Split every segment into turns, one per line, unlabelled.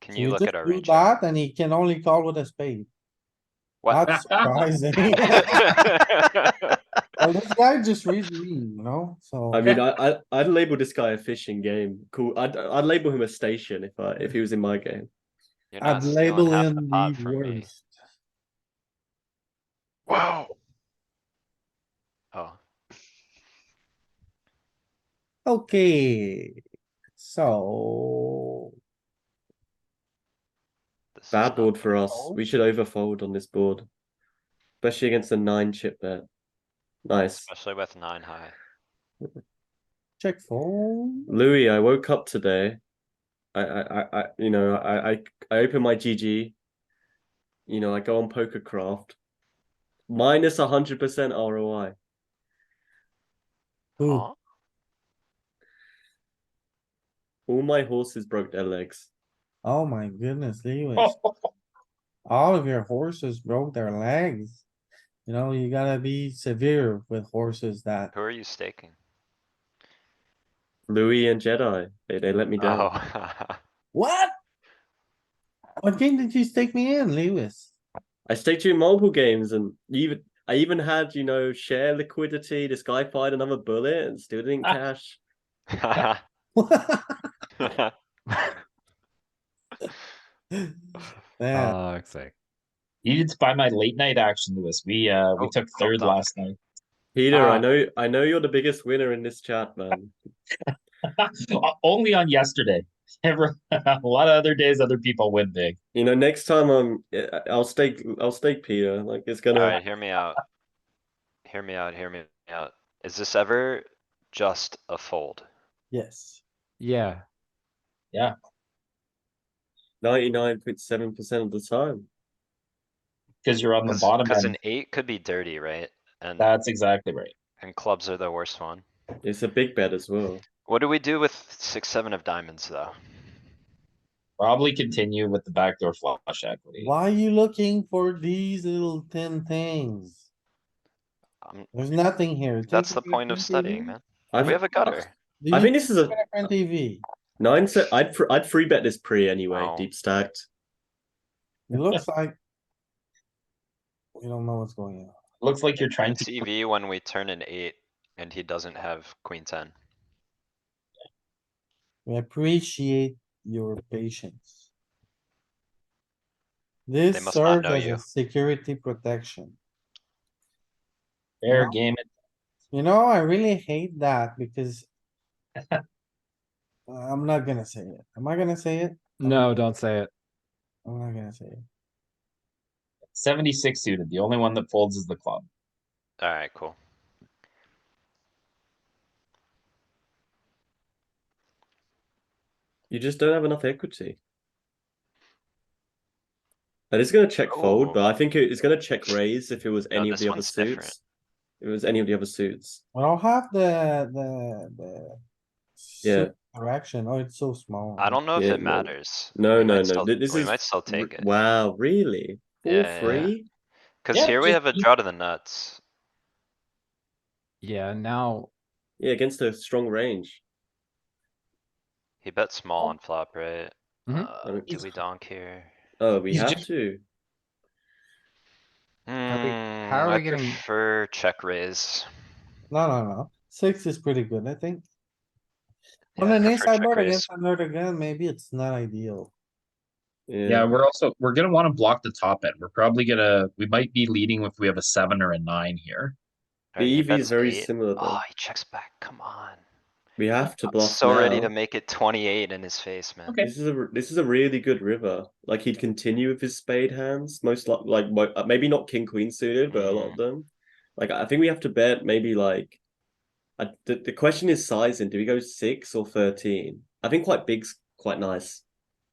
Can
So
you
he
look
just
at our
drew
range?
that And he can only call with a spade.
What?
That's surprising. Well, this guy just reads me, you know, so.
I mean, I, I I'd label this guy a fishing game. Cool. I'd I'd label him a station if I if he was in my game.
You're not
I'd
stealing
label
half
him
pot
the
from me.
worst.
Wow.
Oh,
Okay, so.
this is
Bad
not
board
good.
for us. We should overfold on this board, especially against a nine chip bet. Nice,
Especially with nine high.
Check fold.
Louis. I woke up today. I I I- I you know I I I open my GG. You know I go on PokerCraft. Minus a hundred percent ROI.
Ooh.
Aw,
All my horses broke their legs.
Oh my goodness, Lewis. All of your horses broke their legs. You know, you gotta be severe with horses that,
Who are you staking?
Louis and Jedi. They they let me down.
Oh.
what? What game did you stake me in, Lewis?
I staked you in multiple games and you even I even had, you know, share liquidity. This guy fired another bullet and still didn't
Ah.
cash.
Yeah,
Fuck's sake.
You did spy my late night action, Lewis. We uh we
Oh,
took
hold
third
on.
last night.
Peter, I
Ah.
know I know you're the biggest winner in this chat, man.
O- Only on yesterday. Ever a lot of other days, other people win big.
You know, next time I'm I- I'll stake I'll stake Peter. Like it's gonna
Alright, hear me out. Hear me out, hear me out. Is this ever just a fold?
yes.
Yeah,
99.7% of the time.
Because you're on the
Cause,
bottom
'cause
end.
an eight could be dirty, right? And,
That's exactly right.
and clubs are the worst one.
It's a big bet as well.
What do we do with six, seven of diamonds, though?
Probably continue with the backdoor flush equity.
Why are you looking for these little tin things?
Um,
There's nothing here.
that's
Take
the
it to your
point of
front
studying,
TV.
man.
I've,
We have a gutter.
Do
I
you
think this is a
have a front TV?
nine set. I'd fr- I'd free bet this pre anyway,
Wow.
deep stacked.
It looks like. We don't know what's going on.
Looks like you're trying
It's
to
EV when we turn an eight and he doesn't have queen ten.
We appreciate your patience. This
They must not
serves
know
as
you.
a security protection.
fair
No.
game it.
You know, I really hate that because. I'm not gonna say it. Am I gonna say it?
no, don't say it.
I'm not gonna say it.
Seventy-six suited. The only one that folds is the club.
Alright, cool.
You just don't have enough equity. And it's gonna check fold, but I think it- it's gonna check raise if it was
Oh. No,
any of
this
the other
one's different.
suits. If it was any of the other suits.
I don't have the, the, the.
Yeah.
suit Direction. Oh, it's so small.
I don't know if
Yeah,
it
no.
matters.
No,
We
no,
might
no.
still-
th- This
We
is
might still
r-
take it.
Wow, really?
Yeah,
Four
yeah, yeah.
free?
Cause
Yeah,
here we
just
have a
keep-
draw to the nuts.
Yeah, now,
Yeah, against a strong range.
He bet small on flop, right?
Mhm.
Uh,
don't
do
think
we donk here?
Oh, we
He's
have
just-
to.
we-
Hmm,
how are
I
we getting-
prefer check raise.
No, no, no. Six is pretty good, I think.
Yeah,
On
I
an
prefer
inside
check
board
raise.
against another gun, maybe it's not ideal.
Yeah,
Yeah,
we're also, we're gonna wanna block the top end. We're probably gonna, we might be leading if we have a seven or a nine here.
Alright, he
the EV is
bets
very
eight.
similar though.
Oh, he checks back, come on.
We have to
I'm
bluff
so ready to
now.
make it twenty-eight in his face, man.
Okay.
This is a r- this is a really good river. Like he'd continue with his spade hands, most like like mo- uh, maybe not king queen suited, but a lot of them. Like I think we have to bet maybe like, I, the the question is sizing. Do we go six or thirteen? I think quite big's quite nice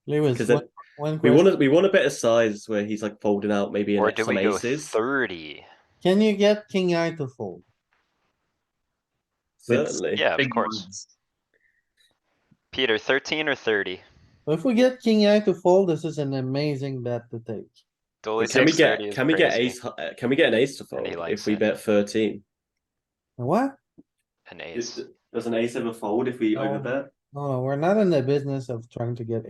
Lewis,
because
one- one
we want
question.
to we want a better size where he's like folding out maybe an
Or
ex-
do
some
we go
aces.
thirty?
Can you get king eye to fold?
It's-
Certainly,
Yeah, of
Big
course.
ones.
Peter, thirteen or thirty?
If we get king eye to fold, this is an amazing bet to take.
Dooley
Can we
takes thirty
get
is
can we get
crazy.
ace? hi- Can we get an ace to
And
fold
he
if
likes
we
it.
bet thirteen?
What?
An ace.
Does an ace ever fold if we
No.
overbet?
No, no, we're not in the business of trying to get